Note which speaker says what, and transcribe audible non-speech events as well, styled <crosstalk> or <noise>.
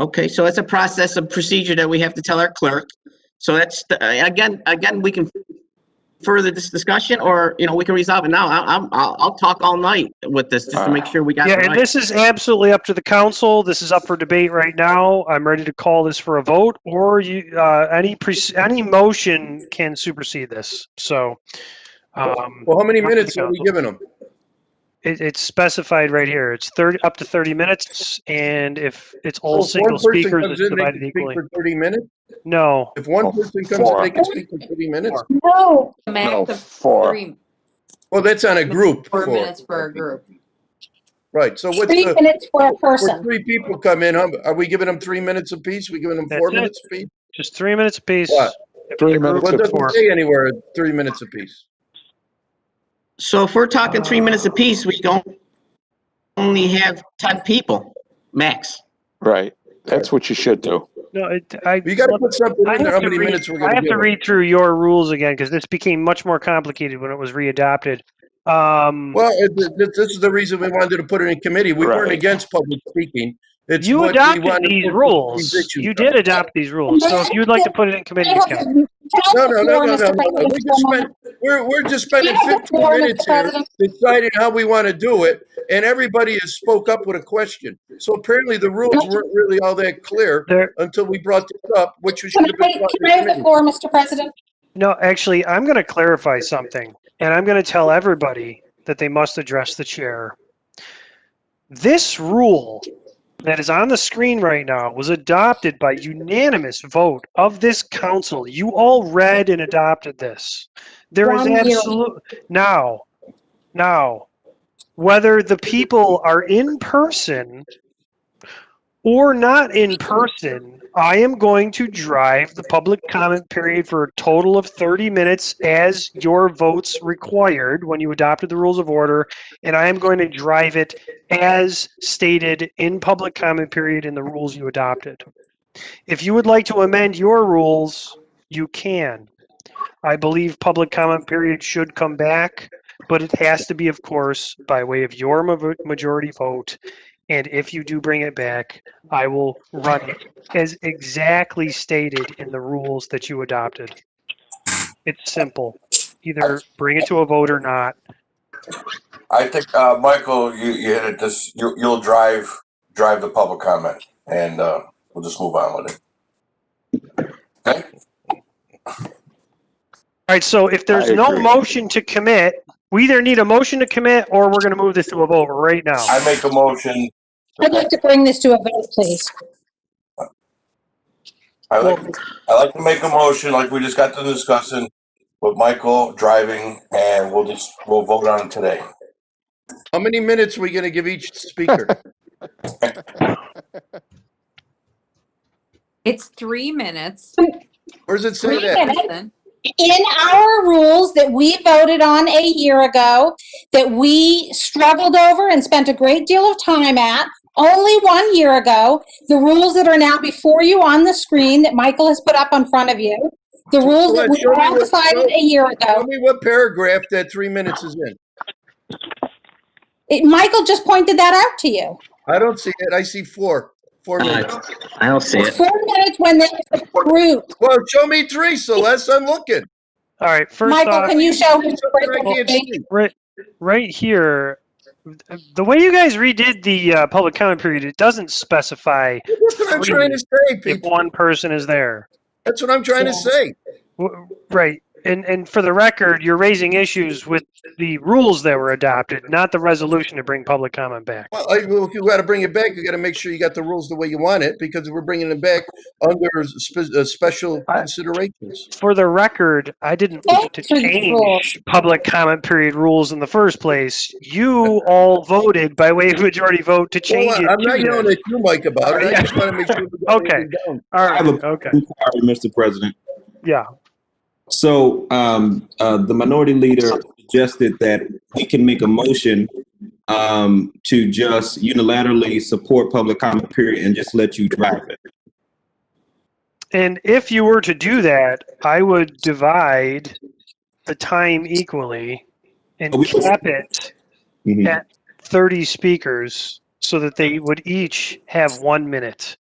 Speaker 1: Okay, so it's a process, a procedure that we have to tell our clerk. So that's, the- uh, again, again, we can further this discussion, or, you know, we can resolve it now. I- I'm, I'll, I'll talk all night with this, just to make sure we got it
Speaker 2: Yeah, and
Speaker 1: right.
Speaker 2: this is absolutely up to the council. This is up for debate right now. I'm ready to call this for a vote, or you, uh, any pre, any motion can supersede this. So, um,
Speaker 3: Well, how many
Speaker 2: Up to
Speaker 3: minutes
Speaker 2: the
Speaker 3: are we
Speaker 2: council.
Speaker 3: giving them?
Speaker 2: it, it's specified right here. It's thirty, up to thirty minutes, and if it's all
Speaker 3: If one
Speaker 2: single
Speaker 3: person
Speaker 2: speakers,
Speaker 3: comes
Speaker 2: it's
Speaker 3: in, they can
Speaker 2: divided
Speaker 3: speak
Speaker 2: equally.
Speaker 3: For thirty minutes?
Speaker 2: No,
Speaker 3: If one person comes in, they can speak for thirty minutes?
Speaker 2: Four.
Speaker 4: No,
Speaker 5: Max
Speaker 6: No,
Speaker 5: of
Speaker 6: four.
Speaker 5: three,
Speaker 3: Well, that's on a group.
Speaker 5: four
Speaker 3: for-
Speaker 5: minutes for a group.
Speaker 3: Right, so what's
Speaker 4: three
Speaker 3: the,
Speaker 4: minutes for a
Speaker 3: when
Speaker 4: person.
Speaker 3: three people come in, um, are we giving them three minutes apiece? We giving them
Speaker 2: That's
Speaker 3: four
Speaker 2: it.
Speaker 3: minutes apiece?
Speaker 2: just three minutes apiece.
Speaker 3: What?
Speaker 6: Three
Speaker 3: Well,
Speaker 6: minutes
Speaker 3: it
Speaker 6: of
Speaker 2: four.
Speaker 3: doesn't say anywhere, three minutes apiece.
Speaker 1: So if we're talking three minutes apiece, we don't only have 10 people, max.
Speaker 6: Right. That's what you should do.
Speaker 2: No, it, I.
Speaker 3: You gotta put something
Speaker 2: I
Speaker 3: in there,
Speaker 2: have
Speaker 3: how
Speaker 2: to
Speaker 3: many
Speaker 2: read-
Speaker 3: minutes we're
Speaker 2: I
Speaker 3: gonna
Speaker 2: have
Speaker 3: give
Speaker 2: to
Speaker 3: them.
Speaker 2: read through your rules again because this became much more complicated when it was readopted. Um,
Speaker 3: Well, it- th- th- this is the reason we wanted to put it in committee. We weren't
Speaker 6: Right.
Speaker 3: against public speaking. It's
Speaker 2: you
Speaker 3: what we
Speaker 2: adopted
Speaker 3: wanted to
Speaker 2: these
Speaker 3: put
Speaker 2: rules.
Speaker 3: these issues
Speaker 2: You
Speaker 3: on.
Speaker 2: did adopt these rules. So if you'd like to put it in
Speaker 4: They
Speaker 2: committee,
Speaker 4: have
Speaker 2: Ken.
Speaker 4: to tell
Speaker 3: No,
Speaker 4: the
Speaker 3: no, no,
Speaker 4: floor,
Speaker 3: no, no,
Speaker 4: Mr.
Speaker 3: no. We
Speaker 4: President,
Speaker 3: just
Speaker 4: for a
Speaker 3: spent,
Speaker 4: moment.
Speaker 3: we're, we're just
Speaker 4: You
Speaker 3: spending
Speaker 4: have the
Speaker 3: 15
Speaker 4: floor, Mr.
Speaker 3: minutes here
Speaker 4: President.
Speaker 3: deciding how we want to do it, and everybody has spoke up with a question. So apparently the rules weren't really all that clear
Speaker 2: There,
Speaker 3: until we brought this up, which we
Speaker 4: Can
Speaker 3: should
Speaker 4: I,
Speaker 3: have been. brought
Speaker 4: can
Speaker 3: in
Speaker 4: I have the
Speaker 3: committee.
Speaker 4: floor, Mr. President?
Speaker 2: no, actually, I'm going to clarify something and I'm going to tell everybody that they must address the chair. This rule that is on the screen right now was adopted by unanimous vote of this council. You all read and adopted this. There is
Speaker 4: One year.
Speaker 2: absolute, now, now, whether the people are in person or not in person, I am going to drive the public comment period for a total of 30 minutes as your votes required when you adopted the rules of order. And I am going to drive it as stated in public comment period in the rules you adopted. If you would like to amend your rules, you can. I believe public comment period should come back, but it has to be, of course, by way of your ma- majority vote. And if you do bring it back, I will run it as exactly stated in the rules that you adopted. It's simple. Either bring it to a vote or not.
Speaker 7: I think, uh, Michael, you, you hit it, this, you, you'll drive, drive the public comment, and, uh, we'll just move on with it. Okay?
Speaker 2: All right, so if there's
Speaker 6: I
Speaker 2: no
Speaker 6: agree.
Speaker 2: motion to commit, we either need a motion to commit or we're gonna move this to a vote right now.
Speaker 7: I make a motion,
Speaker 4: I'd like to bring this to a vote, please.
Speaker 7: I like, I like to make a motion, like we just got to discussing, with Michael driving, and we'll just, we'll vote on it today.
Speaker 3: How many minutes are we gonna give each speaker?
Speaker 5: It's three minutes.
Speaker 3: Where does it say
Speaker 4: Three
Speaker 3: that?
Speaker 4: minutes. In our rules that we voted on a year ago, that we struggled over and spent a great deal of time at, only one year ago, the rules that are now before you on the screen that Michael has put up in front of you, the rules that we
Speaker 3: Show me
Speaker 4: all
Speaker 3: what-
Speaker 4: decided a year
Speaker 3: Tell
Speaker 4: ago.
Speaker 3: me what paragraph that three minutes is in.
Speaker 4: It- Michael just pointed that out to you.
Speaker 3: I don't see it. I see four, four
Speaker 1: All right.
Speaker 3: minutes.
Speaker 1: I don't see it.
Speaker 4: Four minutes when there's a group.
Speaker 3: Well, show me three, Celeste, I'm looking.
Speaker 2: All right, first
Speaker 4: Michael,
Speaker 2: off,
Speaker 4: can you show him?
Speaker 3: Something I can't see.
Speaker 2: right, right here, the way you guys redid the uh, public comment period, it doesn't specify
Speaker 3: That's what I'm trying to say,
Speaker 2: if
Speaker 3: people.
Speaker 2: one person is there.
Speaker 3: That's what I'm trying to say.
Speaker 2: W- Right, and, and for the record, you're raising issues with the rules that were adopted, not the resolution to bring public comment back.
Speaker 3: Well, I, well, if you got to bring it back, you got to make sure you got the rules the way you want it because we're bringing it back under spe- uh, special
Speaker 2: I-
Speaker 3: considerations.
Speaker 2: For the record, I didn't
Speaker 4: Vote
Speaker 2: want to
Speaker 4: for the
Speaker 2: change
Speaker 4: rules.
Speaker 2: public comment period rules in the first place. You all voted by way of majority vote to
Speaker 3: Well,
Speaker 2: change it.
Speaker 3: I'm not
Speaker 2: to
Speaker 3: yelling
Speaker 2: that.
Speaker 3: at you, Mike, about it. I just want to make sure. we got
Speaker 2: <laughs> Okay.
Speaker 3: everything down.
Speaker 2: All
Speaker 8: I have
Speaker 2: right, okay,
Speaker 8: Sorry, Mr. President.
Speaker 2: yeah.
Speaker 8: So um, uh, the minority leader suggested that we can make a motion um, to just unilaterally support public comment period and just let you drive it.
Speaker 2: And if you were to do that, I would divide the time equally and
Speaker 8: Oh, we-
Speaker 2: cap it
Speaker 8: Mhm.
Speaker 2: Yeah. 30 speakers so that they would each have one minute.